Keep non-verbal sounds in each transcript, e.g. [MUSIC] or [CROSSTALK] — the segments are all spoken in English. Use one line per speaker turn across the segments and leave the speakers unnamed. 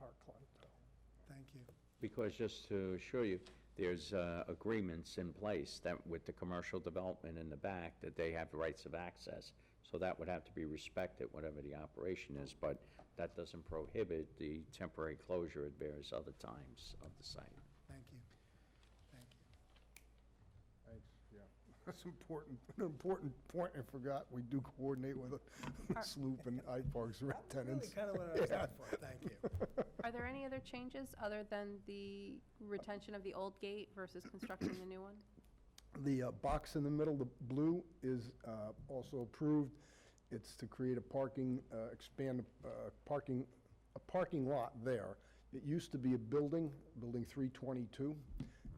not closed, so, thank you.
Because just to assure you, there's uh, agreements in place that with the commercial development in the back, that they have rights of access. So that would have to be respected, whatever the operation is, but that doesn't prohibit the temporary closure at various other times of the site.
Thank you. Thank you.
Thanks, yeah. [LAUGHS] That's important, an important point I forgot. We do coordinate with Sloop and iParks rent tenants.
Really kind of what I was looking for, [LAUGHS] thank you.
Are there any other changes other than the retention of the old gate versus constructing the new one?
The uh, box in the middle, the blue, is uh, also approved. It's to create a parking, uh, expand uh, parking, a parking lot there. It used to be a building, Building 322,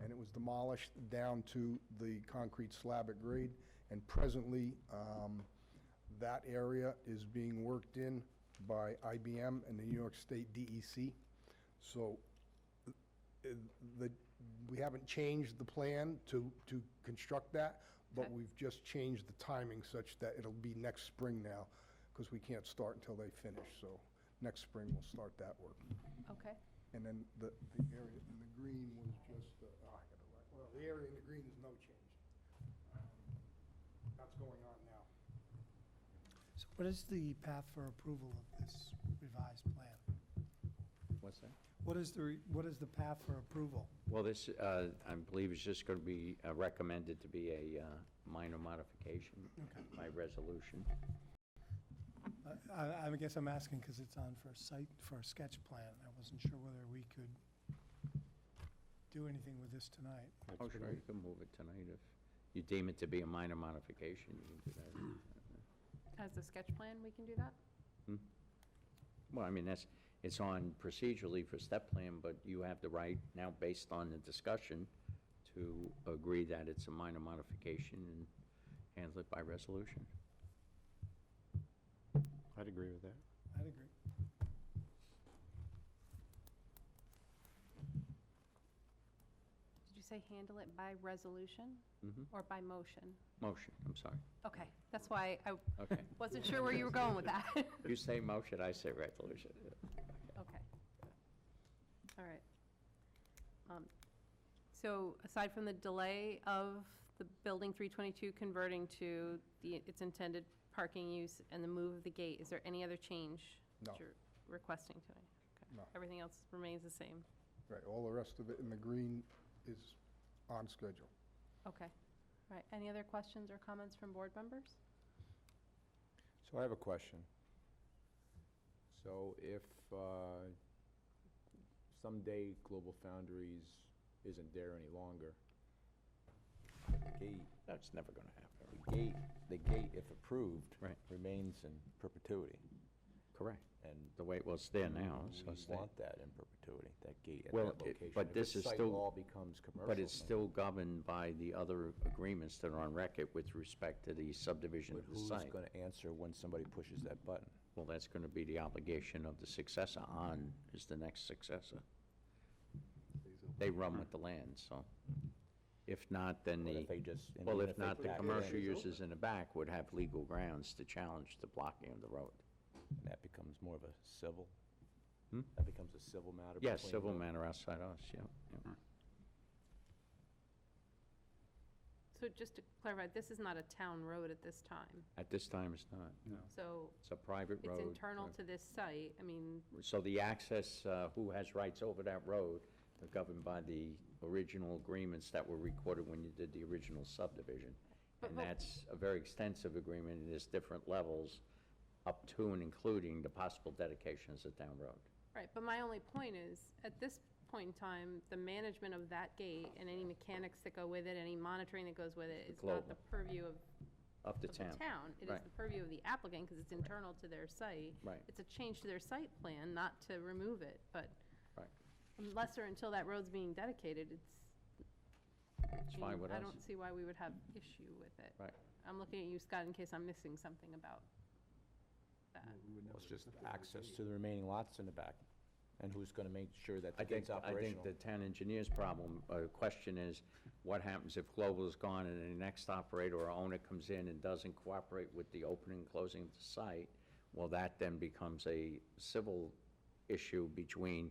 and it was demolished down to the concrete slab at grade. And presently, um, that area is being worked in by IBM and the New York State DEC. So uh, the, we haven't changed the plan to, to construct that, but
Okay.
we've just changed the timing such that it'll be next spring now, because we can't start until they finish, so next spring we'll start that work.
Okay,
And then the, the area in the green was just, uh, oh, I gotta write, well, the area in the green is no change. That's going on now.
So what is the path for approval of this revised plan?
What's that?
What is the, re- what is the path for approval?
Well, this, uh, I believe, is just going to be uh, recommended to be a uh, minor modification by resolution.
I- I, I guess I'm asking because it's on for a site, for a sketch plan. I wasn't sure whether we could do anything with this tonight.
Oh, sure, you can move it tonight if you deem it to be a minor modification, you can do that.
as a sketch plan, we can do that?
Well, I mean, that's, it's on procedurally for step plan, but you have the right now, based on the discussion, to agree that it's a minor modification and handle it by resolution.
I'd agree with that.
I'd agree.
Did you say handle it by resolution
hmm
or by motion?
motion, I'm sorry.
Okay, that's why I
[LAUGHS]
Okay.
wasn't sure where you were going with that. [LAUGHS]
You say motion, I say resolution.
Okay. All right. Um, So aside from the delay of the Building 322 converting to the, its intended parking use and the move of the gate, is there any other change
No.
that you're requesting tonight? Okay.
No.
Everything else remains the same?
Right, all the rest of it in the green is on schedule.
Okay. All right. Any other questions or comments from board members?
So I have a question. So if uh, someday Global Foundries isn't there any longer,
gate,
That's never going to happen.
the gate, the gate, if approved,
Right.
remains in perpetuity,
Correct.
and
The way, well, it's there now, so it's
we
there.
want that in perpetuity, that gate at that
Well, it-
location.
but
If
this
the
is
site
still-
all becomes commercial.
But it's
then-
still governed by the other agreements that are on record with respect to the subdivision
But
of the
who's
site.
gonna answer when somebody pushes that button?
Well, that's going to be the obligation of the successor on, is the next successor. They run with the land, so. If not, then
What if
the,
they just? and
well,
even
if
they
not, the
back it in,
commercial uses in the back would have legal grounds to challenge the blocking of the road.
That becomes more of a civil?
Hmm?
That becomes a civil matter?
Yes,
between
civil
the-
matter outside us, yeah. yeah.
So just to clarify, this is not a town road at this time.
At this time, it's not.
So
It's a private road.
it's internal
uh,
to this site. I mean,
So the access, uh, who has rights over that road, are governed by the original agreements that were recorded when you did the original subdivision.
But-
And
but-
that's a very extensive agreement, and there's different levels up to and including the possible dedication as a town road.
Right, but my only point is, at this point in time, the management of that gate and any mechanics that go with it, any monitoring that goes with it,
The
is not the
global.
purview of
Up to
of the
town.
town. It is
Right.
the purview of the applicant, because it's internal to their site.
Right.
It's a change to their site plan, not to remove it, but
Right.
unless or until that road's being dedicated, it's.
It's
I
fine
mean,
with
I
us.
don't see why we would have issue with it.
Right.
I'm looking at you, Scott, in case I'm missing something about that.
Well,
Well, It's just access to the remaining lots in the back, and who's gonna make sure that
I think,
the gate's
I
operational?
think the town engineer's problem, uh, question is, what happens if Global is gone and the next operator or owner comes in and doesn't cooperate with the opening and closing of the site? Well, that then becomes a civil issue between